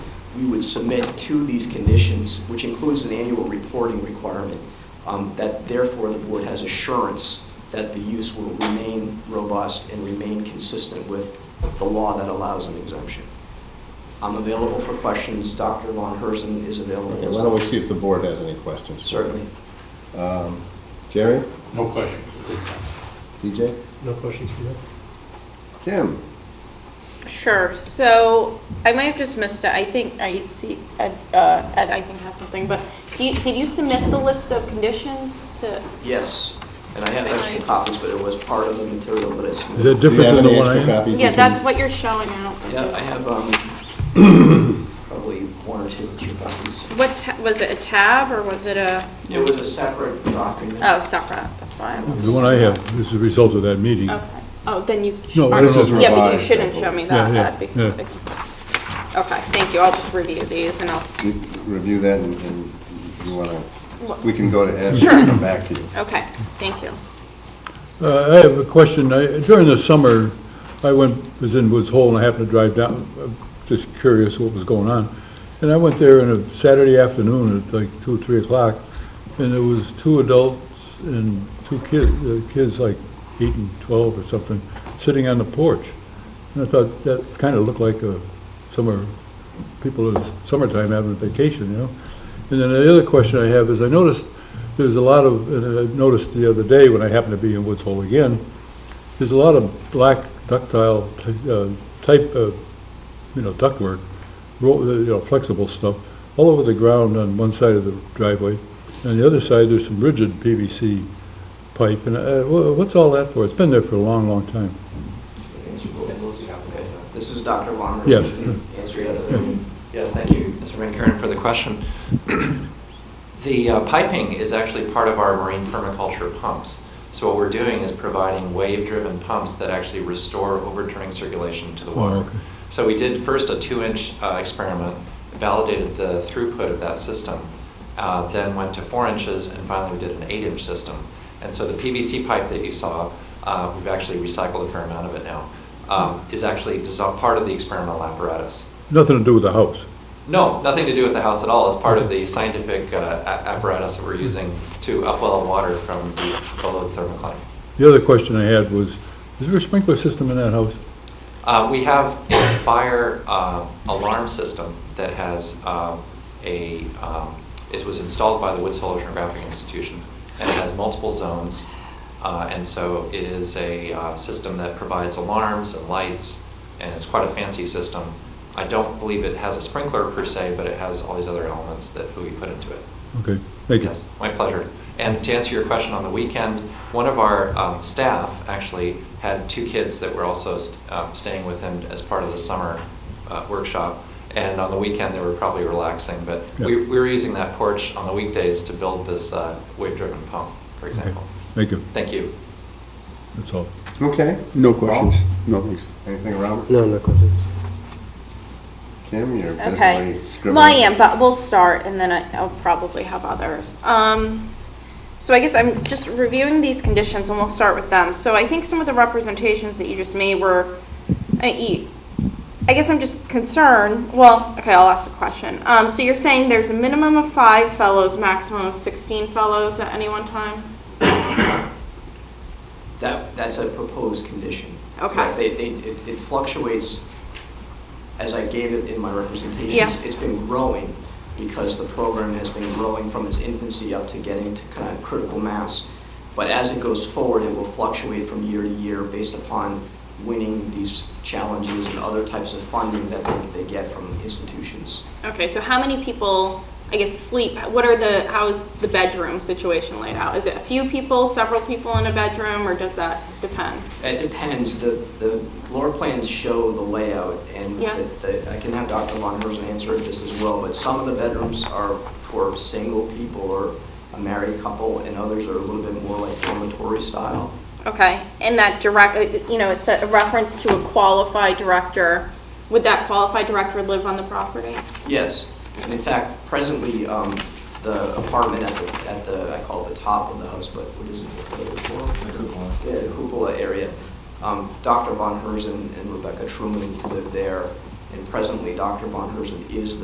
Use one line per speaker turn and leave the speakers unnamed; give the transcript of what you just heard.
we would submit to these conditions, which includes an annual reporting requirement, um, that therefore the board has assurance that the use will remain robust and remain consistent with the law that allows an exemption. I'm available for questions. Dr. Von Herzen is available
Okay,
as
why don't
well.
we see if the board has any questions?
Certainly.
Um, Jerry,
No question. at this time.
DJ,
No questions from you?
Jim?
Sure, so I might have just missed it, I think, I see, Ed, uh, Ed, I think has something, but do you, did you submit the list of conditions to?
Yes, and I have extra copies, but it was part of the material that I
Is that
submitted.
different than the one
Do
I
you have any extra
am?
copies? you
Yeah,
can-
that's what you're showing out.
Yeah, I have um, probably one or two, two copies.
What, ta- was it a tab or was it a,
It was a separate document.
oh, separate, that's why I was.
The one I have is the result of that meeting.
Okay, oh, then you.
No, I don't know.
Yeah, but you
Revised, I
shouldn't
believe.
show me
Yeah,
that,
yeah,
that'd be.
yeah.
Okay, thank you, I'll just review these and I'll, s-
You Review that and- and you want to,
Look.
we can go to Ed and come back to you.
okay, thank you.
Uh, I have a question. I- During the summer, I went, was in Woods Hole, and I happened to drive down, uh, just curious what was going on. And I went there on a Saturday afternoon at like 2, 3 o'clock, and there was two adults and two kids, kids like 8 and 12 or something, sitting on the porch. And I thought, that kind of looked like a summer, people in summertime having a vacation, you know? And then the other question I have is, I noticed there's a lot of, and I noticed the other day when I happened to be in Woods Hole again, there's a lot of black ductile ty- uh, type of, you know, ductwork, ro- uh, you know, flexible stuff, all over the ground on one side of the driveway. On the other side, there's some rigid PVC pipe, and uh, wha- what's all that for? It's been there for a long, long time.
Answer both of those. This is Dr. Von Herzen.
Yes.
Answer yes.
Yes, thank you, Mr. Van Kuren, for the question. The uh, piping is actually part of our marine permaculture pumps. So what we're doing is providing wave-driven pumps that actually restore overturning circulation to the
Oh,
water.
okay.
So we did first a two-inch uh, experiment, validated the throughput of that system, uh, then went to four inches, and finally we did an eight-inch system. And so the PVC pipe that you saw, uh, we've actually recycled a fair amount of it now, um, is actually dissol- part of the experimental apparatus.
Nothing to do with the house.
No, nothing to do with the house at all. It's part of the scientific uh, a- apparatus that we're using to upwell water from deep below the thermocline.
The other question I had was, is there a sprinkler system in that house?
Uh, We have a fire uh, alarm system that has um, a, um, it was installed by the Woods Hole Oceanographic Institution, and it has multiple zones. Uh, And so it is a uh, system that provides alarms and lights, and it's quite a fancy system. I don't believe it has a sprinkler per se, but it has all these other elements that we put into it.
Okay, thank you.
Yes, my pleasure. And to answer your question, on the weekend, one of our um, staff actually had two kids that were also st- um, staying with him as part of the summer uh, workshop. And on the weekend, they were probably relaxing, but we
Yeah.
we were using that porch on the weekdays to build this uh, wave-driven pump, for
Okay,
example.
Thank you,
Thank you.
that's all.
Okay.
No
Paul?
questions, no thanks.
Anything, Robert?
No, no questions.
Kim, you're
Okay.
busy scribbling.
Well, I am, but we'll start and then I- I'll probably have others. Um, so I guess I'm just reviewing these conditions and we'll start with them. So I think some of the representations that you just made were, I, you- I guess I'm just concerned, well, okay, I'll ask a question. Um, so you're saying there's a minimum of five fellows, maximum of 16 fellows at any one time?
That, that's a proposed condition.
Okay.
Right, They, they, it it fluctuates, as I gave it in my representations.
Yeah.
It's been growing because the program has been growing from its infancy up to getting to kind of critical mass. But as it goes forward, it will fluctuate from year to year based upon winning these challenges and other types of funding that they, they get from institutions.
Okay, so how many people, I guess, sleep? What are the, how is the bedroom situation laid out? Is it a few people, several people in a bedroom, or does that depend?
It depends, the, the floor plans show the layout, and
Yeah.
the- the- I can have Dr. Von Herzen answer this as well, but some of the bedrooms are for single people or a married couple, and others are a little bit more like dormitory style.
Okay, and that direct, uh, you know, it's a reference to a qualified director. Would that qualified director live on the property?
Yes, and in fact, presently, um, the apartment at the, at the, I call it the top of the house, but what is it? the floor? Yeah, the cupola area. Um, Dr. Von Herzen and Rebecca Truman live there, and presently, Dr. Von Herzen is the